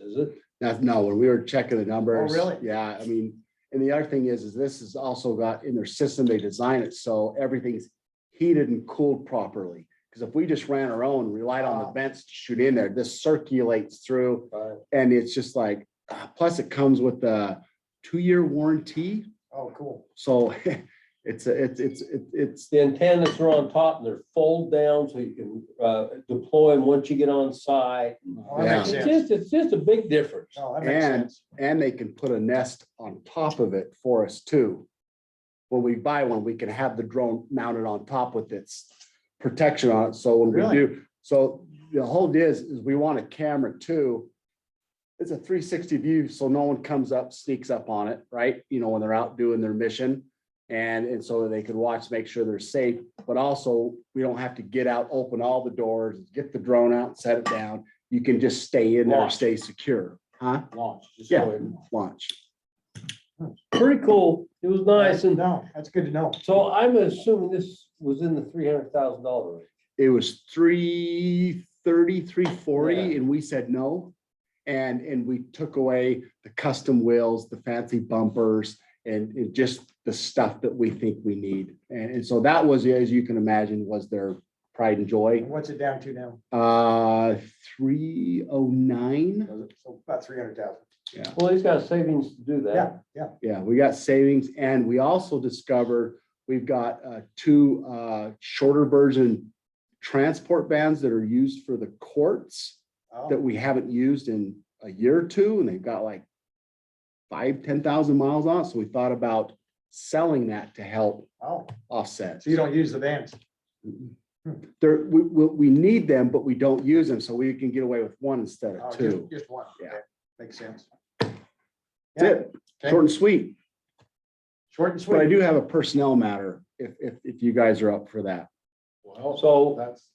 is it? That's no, when we were checking the numbers. really? Yeah, I mean, and the other thing is, is this is also got in their system, they design it so everything's heated and cooled properly. Because if we just ran our own, relied on the Ah. vents to shoot in there, this circulates through Right. and it's just like, ah, plus it comes with a two-year warranty. Oh, cool. So it's, a- it's, it's, it's- it's, The antennas are on top and they're fold down so you can uh, deploy them once you get on site. Oh, That It's makes sense. Oh, just, it's just a big difference. No, that makes And- sense. and they can put a nest on top of it for us too. When we buy one, we can have the drone mounted on top with its protection on it, so when we Really? do, so the whole deal is, is we want a camera too. It's a three sixty view, so no one comes up, sneaks up on it, right, you know, when they're out doing their mission. And, and so that they can watch, make sure they're safe, but also, we don't have to get out, open all the doors, get the drone out, set it down. You can just stay in there, Launch. stay secure, huh? Launch, just go Yeah. ahead and launch. launch. Pretty cool. It was nice. And No, that's good to know. so I'm assuming this was in the three hundred thousand dollar range. It was three thirty, three forty, Yeah. and we said no. And, and we took away the custom wheels, the fancy bumpers, and it just the stuff that we think we need. And, and so that was, as you can imagine, was their pride and joy. And What's it down to now? Uh, three oh nine, So about three hundred thousand. Well, he's got savings to do Yeah, that. yeah. yeah, we got savings, and we also discovered we've got, uh, two, uh, shorter version transport vans that are used for the courts. Oh, that we haven't used in a year or two, and they've got like five, ten thousand miles on, it. so we thought about selling that to help Oh, offset. so you don't use the vans? There, we, we, we need them, but we don't use them, so we can get away with one instead Oh, of just- two. Just one. Yeah. Okay, Makes sense. Yeah, That's it, okay. short and sweet, Short and but I sweet. do have a personnel matter, if, if, if you guys are up for that. So That's,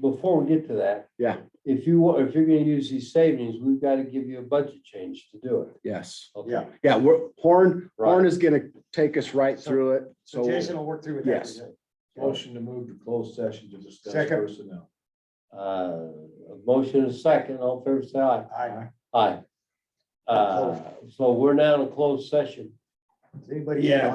before we get to that. Yeah. If you, wa- if you're gonna use these savings, we've got to give you a budget change to do it. Yes, Okay. Yeah. yeah, we're, Horn, Horn Right. is gonna take us right So- through it, so so Jason will work through with Yes. that. Motion to move to closed session to discuss Second. personnel. Uh, a motion and a second, all fair say aye. Aye. Aye. Uh, so we're now in a closed session. Does anybody? Yeah.